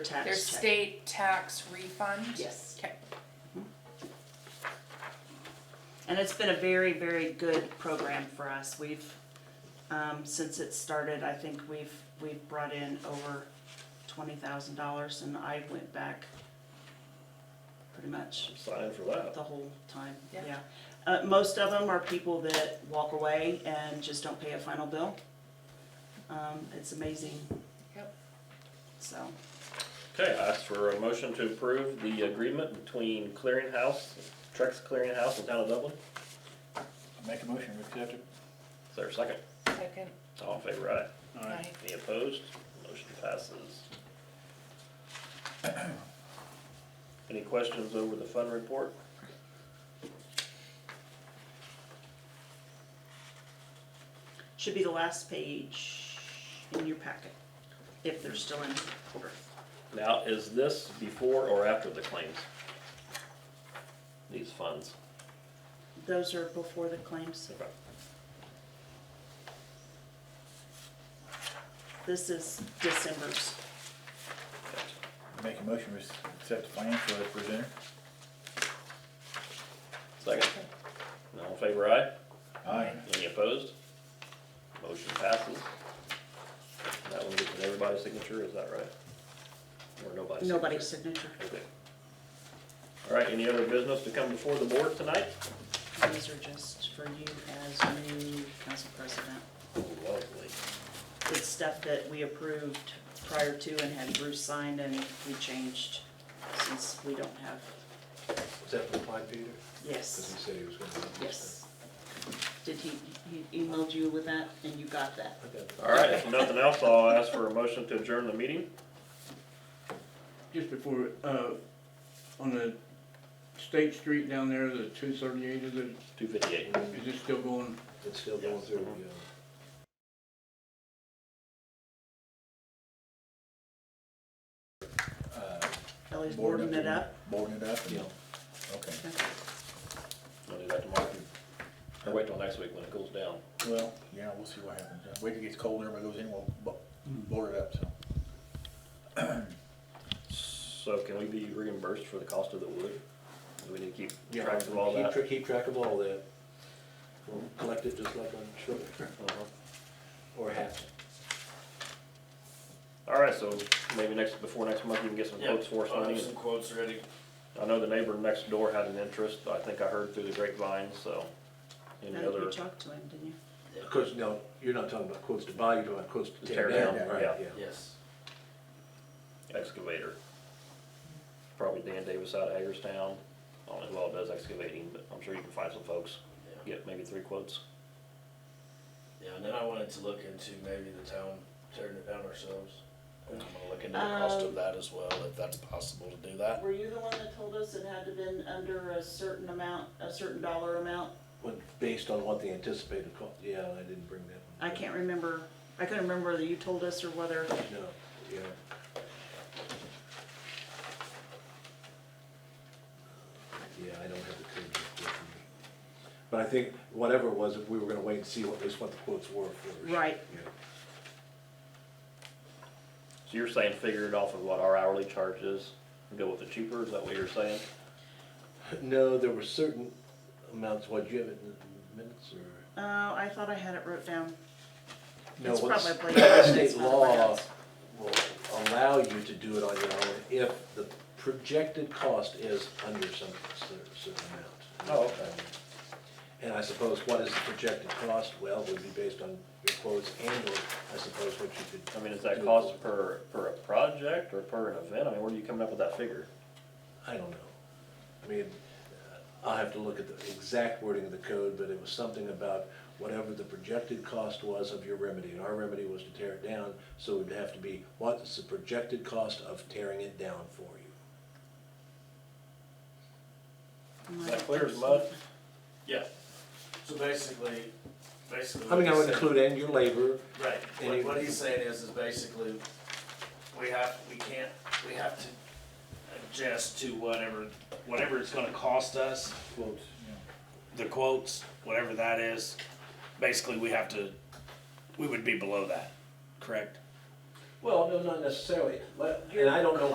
tax Their check. state tax refund? Yes. Okay. And it's been a very, very good program for us. We've, um, since it started, I think we've, we've brought in over twenty thousand dollars and I went back pretty much Sign for that. the whole time, Yeah. yeah. Uh, most of them are people that walk away and just don't pay a final bill. Um, it's amazing, Yep. so. Okay, I ask for a motion to approve the agreement between Clearinghouse, Trex Clearinghouse and Town of Dublin. Make a motion, we accept it. Is there a second? Second. All in favor, aye. All right. Aye. Any opposed? Motion passes. Any questions over the fund report? Should be the last page in your packet, if they're still in order. Now, is this before or after the claims? These funds? Those are before the claims. Okay. This is December's. Make a motion, we accept the financial as presented. Second? All in favor, aye. Aye. Any opposed? Motion passes. That one gets everybody's signature, is that right? Or nobody's? signature? Nobody's signature. Okay. All right, any other business to come before the board tonight? These are just for you as new council president. Lovely. It's stuff that we approved prior to and had Bruce signed and we changed since we don't have, Is that for the pine Peter? Because he yes, said he was gonna. do yes. this Did he, he emailed you with that and you got that? thing. Okay. All right, if nothing else, I'll ask for a motion to adjourn the meeting. Just before, uh, on the State Street down there, the two thirty-eight, is it, Two fifty-eight. is it still going? It's still going Yes. through, Mhm. yeah. Uh, Ellie's boarding it up? Boarding it up? and- Yeah. Okay. I'll do that tomorrow. Or wait till next week when it cools down. Well, yeah, we'll see what happens. Uh, Wait till it gets cold, everybody goes in, we'll bo- board it up, so. So can we be reimbursed for the cost of the wood? Do we need to keep Yeah, track of all keep that? tra- Keep track of all that. We'll Collect it just like on sugar, Uh-huh. or half. All right, so maybe next, before next month, you can get some quotes for us I'll on have these. some quotes ready. I know the neighbor next door had an interest, I think I heard through the grapevine, so. Any Now, You other, talked to him, didn't you? Of course, no, you're not talking about quotes to buy, you're talking about quotes to tear Tear down, down, right, yeah. yeah. Yes. excavator? Probably Dan Davis out of Hagerstown, I don't know who all does excavating, but I'm sure you can find some folks, Yeah. get maybe three quotes. Yeah, and then I wanted to look into maybe the town tearing it down ourselves. And I'm gonna look into the cost Um, of that as well, if that's possible to do that. Were you the one that told us it had to been under a certain amount, a certain dollar amount? When, based on what the anticipated cost, yeah, I didn't bring that I one. can't remember, I couldn't remember whether you told us or whether, oh, No, yeah. Yeah, I don't have the code with me. But I think whatever it was, we were gonna wait and see what, at least what the quotes were first. right, Yeah. So you're saying figure it off of what our hourly charge is, and go with the cheaper, is that what you're saying? No, there were certain amounts, what, do you have it in the minutes or? uh, I thought I had it wrote down. No, It's what's- probably- it's State probably law us. will allow you to do it on your own if the projected cost is under some cer- certain amount. Oh, okay. And I suppose what is the projected cost? Well, it would be based on your quotes and or I suppose what you could. I mean, is that do. cost per, per a project or per an event? I mean, where are you coming up with that figure? I don't know. I mean, I'll have to look at the exact wording of the code, but it was something about whatever the projected cost was of your remedy, and our remedy was to tear it down, so it would have to be, what is the projected cost of tearing it down for you? Is that clear as mud? Yeah. So basically, basically. I mean, I what would he's include in your labor, saying- Right, any- what, what he's saying is, is basically, we have, we can't, we have to adjust to whatever, whatever it's gonna cost us. Quotes, yeah. the quotes, whatever that is, basically we have to, we would be below that, correct? well, no, not necessarily, and I don't know